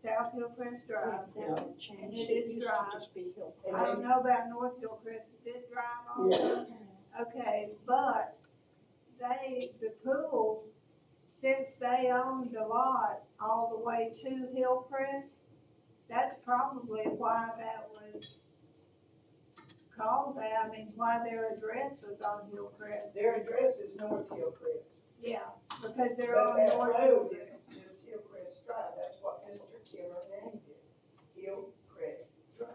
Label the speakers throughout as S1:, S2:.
S1: South Hillcrest Drive.
S2: Yeah.
S3: Now it changed,
S1: It
S3: it
S1: is
S3: used to
S1: dry.
S3: just be
S1: I
S3: Hillcrest.
S1: don't know about North Hillcrest, is it dry
S2: Yes.
S1: also? Okay, but they, the pool, since they owned the lot all the way to Hillcrest, that's probably why that was called that, I mean, why their address was on Hillcrest.
S4: Their address is North Hillcrest.
S1: Yeah, because
S4: But
S1: they're on
S4: that
S1: North
S4: road
S1: Hillcrest.
S4: is just Hillcrest Drive, that's what Mr. Kimmer named it, Hillcrest Drive.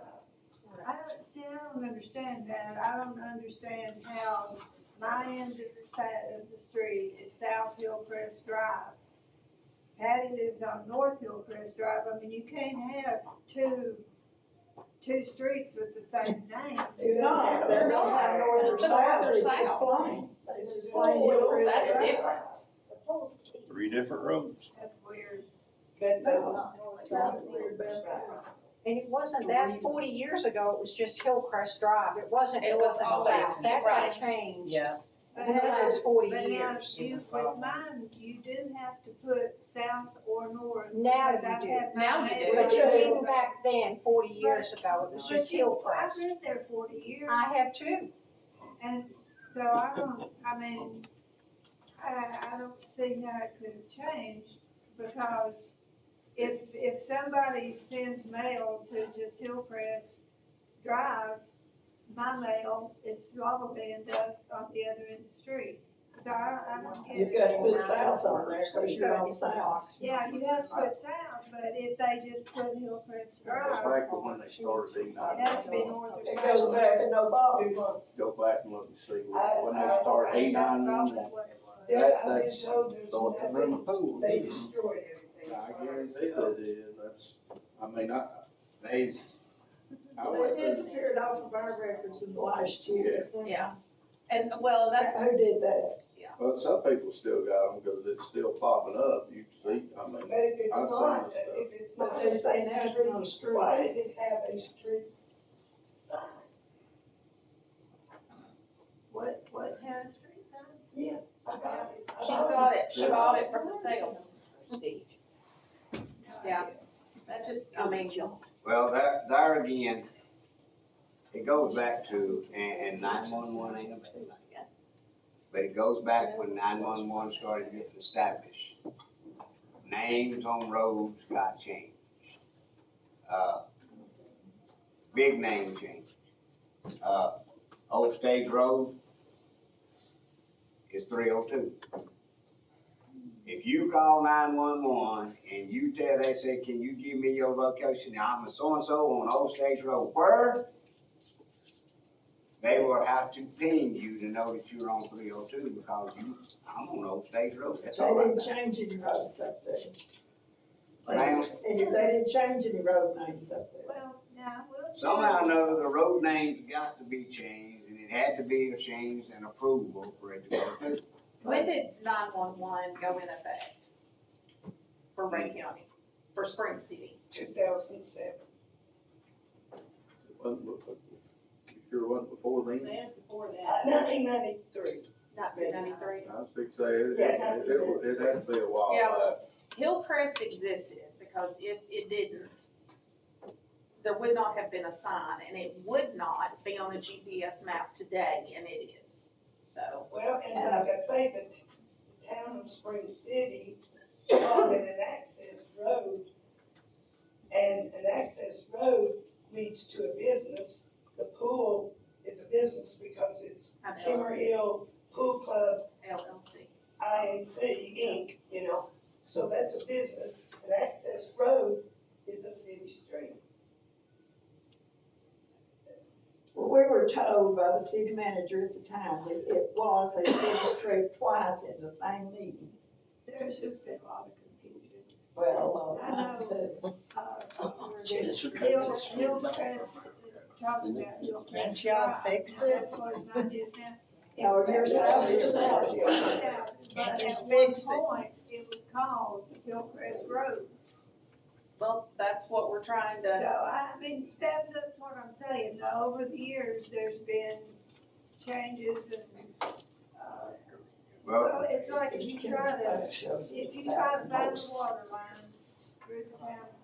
S1: I don't, see, I don't understand that, I don't understand how my end of the side of the street is South Hillcrest Drive. Patty lives on North Hillcrest Drive, I mean, you can't have two, two streets with the same name.
S4: It doesn't
S2: No,
S4: have
S2: they're
S4: a
S2: not
S4: sign.
S2: north or south, it's just
S3: South.
S2: plain.
S4: This is Hillcrest
S2: plain Hillcrest.
S4: Drive.
S3: That's different.
S5: three different roads.
S1: That's weird.
S4: But no,
S3: North
S4: South
S3: South.
S4: Hillcrest Drive.
S3: And it wasn't that, forty years ago, it was just Hillcrest Drive, it wasn't
S6: It was
S3: north and
S6: always
S3: south, that
S6: right.
S3: got changed.
S2: Yeah.
S1: But
S3: in the
S1: now-
S3: last forty
S1: But now,
S3: years.
S1: you,
S2: was
S1: with
S2: all-
S1: mine, you do have to put south or north.
S3: Now
S1: because
S3: you
S1: I
S3: do.
S1: have my
S6: Now you do.
S1: neighbor-
S3: But you didn't back then, forty years ago, it was
S1: But
S3: just
S1: you- I've
S3: Hillcrest.
S1: lived there forty years.
S3: I have too.
S1: And so I don't, I mean, I, I don't see how it could have changed, because if, if somebody sends mail to just Hillcrest Drive, my mail, it's probably end up on the other end of the street, so I, I don't get
S2: You've
S1: it.
S2: got to put south on there, so
S3: It's
S2: you're on
S3: it's
S2: south.
S3: blocks.
S1: Yeah, you have to put south, but if they just put Hillcrest
S5: Go
S1: Drive,
S5: back to when they started E
S1: it has to be
S5: nine,
S1: north or
S2: It
S1: south.
S2: goes back to no box.
S4: It's-
S5: go back and look and see when when they started
S1: That's
S5: E nine one
S1: probably
S5: one.
S1: what it was.
S4: There, I've been told there's
S5: So it's in the
S4: nothing,
S5: pool.
S4: they destroyed everything.
S5: I guarantee that it is, that's, I mean, I, they. I went
S2: They
S5: through-
S2: disappeared off of our records in the last year.
S6: Yeah, and, well, that's,
S2: Who did that?
S5: Well, some people still got them because it's still popping up, you see, I
S4: But
S5: mean,
S4: if it's
S5: I've seen
S4: not,
S5: this stuff.
S4: if it's
S2: But
S4: not.
S2: they say now it's not a street.
S4: Why did it have a street sign?
S1: What, what town street is that?
S4: Yeah. I got it. I
S6: she's
S4: got it.
S6: got it, she bought it from the sale.
S1: No
S6: Yeah.
S1: idea.
S6: That just, I mean,
S7: Well, there, there again, it goes back to, and, and nine-one-one ain't a bad thing. But it goes back when nine-one-one started getting established. Names on roads got changed. Uh, Big name change. Uh, Old Stage Road is three oh two. If you call nine-one-one and you tell, they say, can you give me your location, I'm a so-and-so on Old Stage Road, where? They will have to ping you to know that you're on three oh two because you, I'm on Old Stage Road, that's all
S2: They
S7: right.
S2: didn't change any roads up there.
S7: Ma'am?
S2: And they didn't change any road names up there.
S1: Well, now, we'll.
S7: Somehow or another, the road names got to be changed, and it had to be a change and approval for it to go through.
S6: when did nine-one-one go in effect? For Ray County, for Spring City?
S4: 2007.
S5: it wasn't, before- it sure wasn't before then.
S6: before
S4: Uh, 1993.
S6: Nineteen ninety-three.
S5: I was fixing to say, it,
S4: Yeah.
S5: it, it, it had to be a while
S6: Yeah.
S5: back.
S6: Hillcrest existed, because if it didn't, there would not have been a sign, and it would not be on a GPS map today, and it is, so.
S4: Well, and like I say, the town of Spring City wanted an access road. And an access road leads to a business. The pool is a business because it's
S6: I know,
S4: Kimmer Hill Pool Club
S6: LLC.
S4: INC Inc., you know, so that's a business, and access road is a city street.
S2: Well, we were told by the city manager at the time that it was a city street twice in the same meeting.
S1: There's just been a lot of confusion.
S2: Well,
S1: I know. Uh, Hill,
S8: Hill,
S1: Hillcrest, uh, talking about
S8: Can't
S1: Hillcrest.
S8: y'all fix it?
S1: That's what it's not is now.
S2: Or your side, your side.
S1: Yeah, But
S8: Can't
S1: at
S8: just
S1: one
S8: fix it.
S1: point, it was called Hillcrest Road.
S6: Well, that's what we're trying
S1: So,
S6: to,
S1: I mean, that's, that's what I'm saying, though, over the years, there's been changes and, uh,
S7: Well,
S1: well, it's like if you try to, if you try to buy the water line through the town